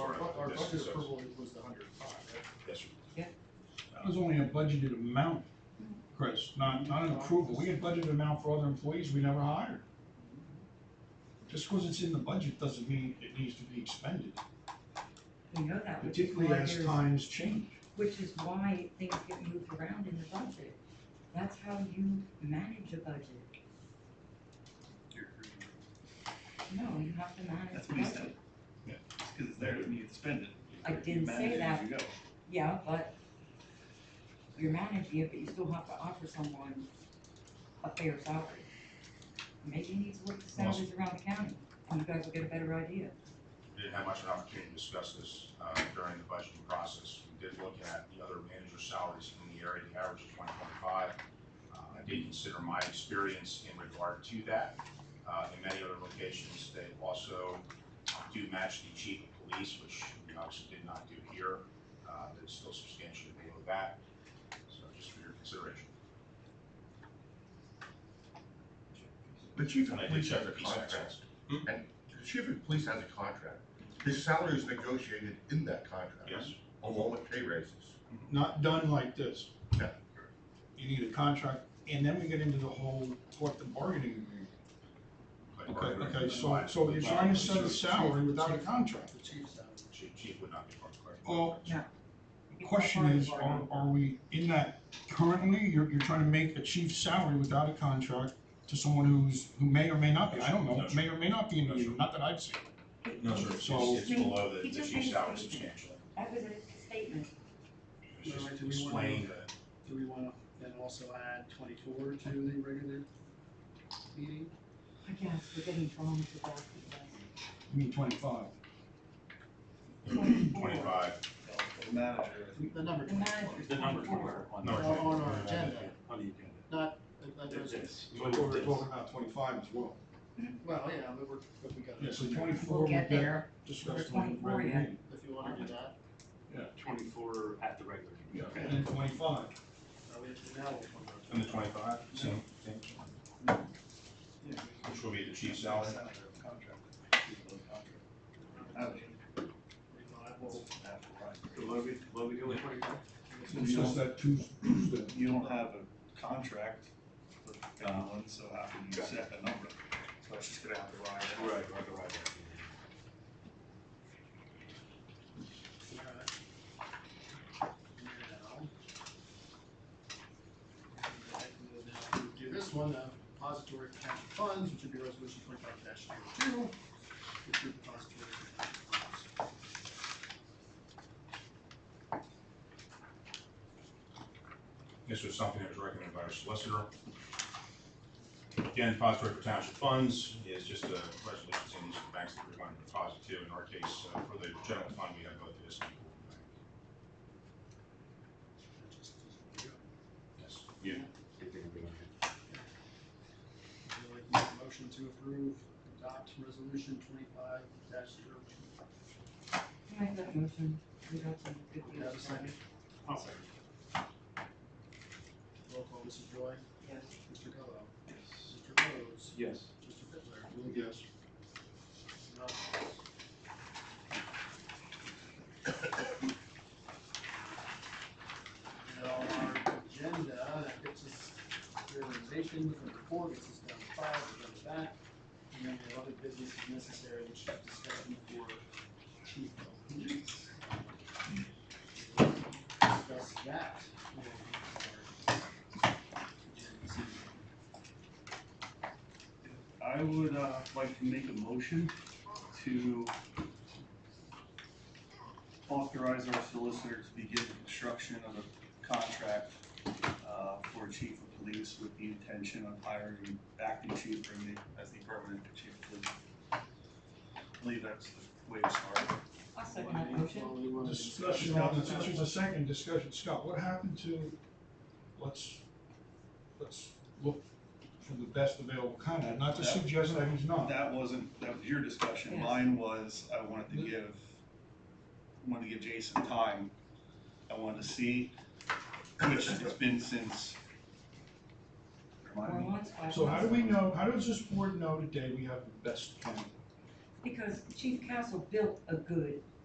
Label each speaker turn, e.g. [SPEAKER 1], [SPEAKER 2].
[SPEAKER 1] This
[SPEAKER 2] budget
[SPEAKER 1] is us.
[SPEAKER 2] approval includes the hundred and five, right?
[SPEAKER 1] Yes, sir.
[SPEAKER 3] It was only a budgeted amount, Chris, not, not an approval. We had budgeted amount for other employees we never hired. Just because it's in the budget doesn't mean it needs to be expended,
[SPEAKER 4] We know that, which is
[SPEAKER 3] particularly
[SPEAKER 4] why
[SPEAKER 3] as
[SPEAKER 4] there's,
[SPEAKER 3] times change.
[SPEAKER 4] which is why things get moved around in the budget. That's how you manage a budget.
[SPEAKER 5] You're agreeing.
[SPEAKER 4] No, you have to manage
[SPEAKER 5] That's
[SPEAKER 4] the
[SPEAKER 5] what he
[SPEAKER 4] budget.
[SPEAKER 5] said. Just because it's there doesn't mean you spend it.
[SPEAKER 4] I
[SPEAKER 5] You
[SPEAKER 4] didn't say
[SPEAKER 5] manage it as
[SPEAKER 4] that.
[SPEAKER 5] you go.
[SPEAKER 4] Yeah, but you're managing it, but you still have to offer someone a fair salary. Maybe you need to look at salaries around the county, and you guys will get a better idea.
[SPEAKER 1] We didn't have much of an opportunity to discuss this uh, during the budgeting process. We did look at the other manager salaries in the area, the average is twenty twenty-five. Uh, I did consider my experience in regard to that. Uh, In many other locations, they also uh, do match the chief of police, which we obviously did not do here. Uh, That's still substantially below that, so just for your consideration.
[SPEAKER 6] The chief of
[SPEAKER 1] And I did
[SPEAKER 6] police
[SPEAKER 1] check
[SPEAKER 6] has
[SPEAKER 1] the
[SPEAKER 6] a
[SPEAKER 1] piece of
[SPEAKER 6] contract.
[SPEAKER 1] expense.
[SPEAKER 6] The chief of police has a contract. His salary is negotiated in that contract.
[SPEAKER 1] Yes,
[SPEAKER 6] Along with pay raises.
[SPEAKER 3] Not done like this.
[SPEAKER 6] No.
[SPEAKER 3] You need a contract, and then we get into the whole collective bargaining agreement.
[SPEAKER 1] but-
[SPEAKER 3] Okay, okay, so, so you're trying to set a salary without a contract.
[SPEAKER 2] The chief's out.
[SPEAKER 1] Chief chief would not be part of the collective
[SPEAKER 3] Well,
[SPEAKER 1] bargaining.
[SPEAKER 4] It's not
[SPEAKER 3] Question
[SPEAKER 4] part of
[SPEAKER 3] is,
[SPEAKER 4] the
[SPEAKER 3] are,
[SPEAKER 5] um,
[SPEAKER 4] bargain.
[SPEAKER 3] are we in that currently, you're, you're trying to make a chief's salary without a contract to someone who's, who may or may not be, I don't know, may or may not be in the union, not that I've seen.
[SPEAKER 1] No, sir, it's,
[SPEAKER 3] So-
[SPEAKER 1] it's below the,
[SPEAKER 4] He
[SPEAKER 1] the
[SPEAKER 4] just
[SPEAKER 1] chief's
[SPEAKER 4] made a
[SPEAKER 1] salary
[SPEAKER 4] statement.
[SPEAKER 1] substantially.
[SPEAKER 4] That was a statement.
[SPEAKER 1] It's just
[SPEAKER 2] Alright, do we wanna-
[SPEAKER 1] explain the,
[SPEAKER 2] Do we wanna then also add twenty-four to the regular meeting?
[SPEAKER 4] I guess we're getting drawn to that.
[SPEAKER 3] I mean, twenty-five.
[SPEAKER 1] twenty-five,
[SPEAKER 5] The manager.
[SPEAKER 2] The number
[SPEAKER 4] The manager's
[SPEAKER 2] twenty-four.
[SPEAKER 5] The number
[SPEAKER 4] twenty-four.
[SPEAKER 5] twenty-four on
[SPEAKER 1] No,
[SPEAKER 2] On
[SPEAKER 5] the,
[SPEAKER 2] on our agenda,
[SPEAKER 5] on the agenda.
[SPEAKER 2] not, uh, uh,
[SPEAKER 5] Did this. You
[SPEAKER 3] But
[SPEAKER 5] look at
[SPEAKER 3] we're
[SPEAKER 5] this.
[SPEAKER 3] talking about twenty-five as well.
[SPEAKER 2] well, yeah, but we're, but we gotta.
[SPEAKER 3] Yeah, so twenty-four
[SPEAKER 4] We'll
[SPEAKER 3] would
[SPEAKER 4] get
[SPEAKER 3] be
[SPEAKER 4] there.
[SPEAKER 3] discussed on the
[SPEAKER 4] 24,
[SPEAKER 3] regular
[SPEAKER 4] yeah.
[SPEAKER 3] meeting.
[SPEAKER 2] If you wanna do that,
[SPEAKER 5] Twenty-four at the regular.
[SPEAKER 3] Yeah,
[SPEAKER 5] meeting.
[SPEAKER 3] and then twenty-five.
[SPEAKER 2] uh, we have to now. we're talking about-
[SPEAKER 1] and the twenty-five, same, same, which will be the chief's salary.
[SPEAKER 2] We don't have- well,
[SPEAKER 5] The Logan, Logan, you only twenty-five?
[SPEAKER 3] We discussed that Tues- Tuesday.
[SPEAKER 7] You don't have a contract with Donlin, so how can you set a number? So it's just gonna have to ride out.
[SPEAKER 5] Right, right, right.
[SPEAKER 2] alright. Now. And then now we Do this one, uh, depository account funds, which would be resolution twenty-five dash two, which would depository account funds.
[SPEAKER 1] This was something that was recommended by our solicitor. Again, depository for township funds is just a resolution saying these are the banks that we're going to deposit to. In our case, uh, for the general fund, we have both the S and P Bank.
[SPEAKER 2] That just is-
[SPEAKER 1] Yes. Yeah.
[SPEAKER 2] Would you like to make a motion to approve, adopt resolution twenty-five dash zero two?
[SPEAKER 4] Can I have that motion? We got some good
[SPEAKER 2] Do you have a
[SPEAKER 4] news.
[SPEAKER 2] second?
[SPEAKER 5] I'll second.
[SPEAKER 2] Roll call, Mrs. Joy,
[SPEAKER 4] Yes.
[SPEAKER 2] Mr. Gallo,
[SPEAKER 5] Yes.
[SPEAKER 2] Mr. Rhodes,
[SPEAKER 5] Yes.
[SPEAKER 2] Mr. Fitzler,
[SPEAKER 3] Yes.
[SPEAKER 2] and I'll vote yes. Now, our agenda, that gets us realization, the report, gets us down to five, we're done with that. And then we have other business if necessary, which is discussion for chief of police. Discuss that. when we start the agenda.
[SPEAKER 7] I would, uh, like to make a motion to authorize our solicitor to begin the construction of a contract, uh, for chief of police with the intention of hiring acting chief or me as the permanent chief of police. I believe that's the way to start.
[SPEAKER 4] I'll second that motion.
[SPEAKER 2] Well, we wanna
[SPEAKER 3] Discussion on this, since it's a second discussion, Scott, what happened to, let's, let's look for the best available candidate, not to suggest that he's not.
[SPEAKER 7] That wasn't, that was your discussion,
[SPEAKER 4] Yes.
[SPEAKER 7] mine was, I wanted to give, I wanted to give Jason time. I wanted to see, which it's been since.
[SPEAKER 4] Or
[SPEAKER 7] Remind me,
[SPEAKER 4] once, five
[SPEAKER 3] So how do
[SPEAKER 4] months.
[SPEAKER 3] we know, how does this board know today we have the best candidate?
[SPEAKER 4] Because Chief Castle built a good